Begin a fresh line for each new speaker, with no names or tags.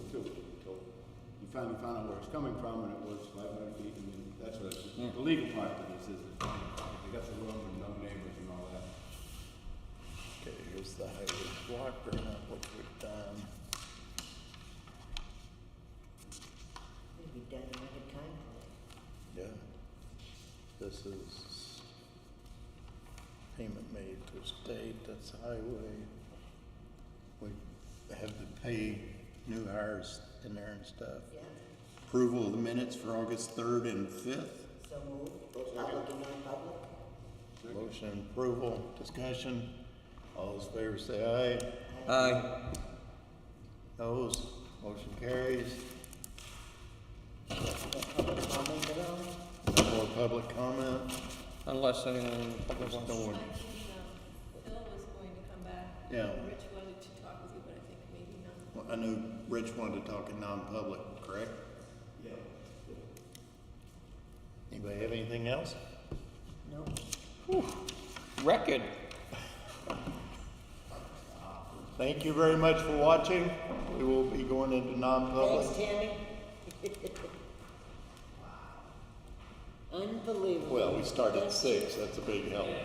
finally found out where it's coming from, and it was five hundred feet, and then that's what, it's- the legal part of this is, is they got the room and no neighbors and all that.
Okay, here's the highway block, bring up what we've done.
We've done a record time for it.
Yeah. This is payment made to state, that's highway. We have to pay new hires in there and stuff.
Yeah,
Approval of the minutes for August third and fifth.
so moved, both public and non-public.
Motion approval, discussion. All those in favor say aye.
Aye.
Opposed, motion carries.
Public comment at all?
No more public comment.
Unless anyone in the public
There's
wants
no one.
Phil was going to come back.
Yeah.
Rich wanted to talk with you, but I think maybe not.
Well, I know Rich wanted to talk in non-public, correct? Yeah. Anybody have anything else?
No.
Record.
Thank you very much for watching. We will be going into
Thanks,
non-public.
Tammy. Unbelievable.
Well, we start at six, that's a big help.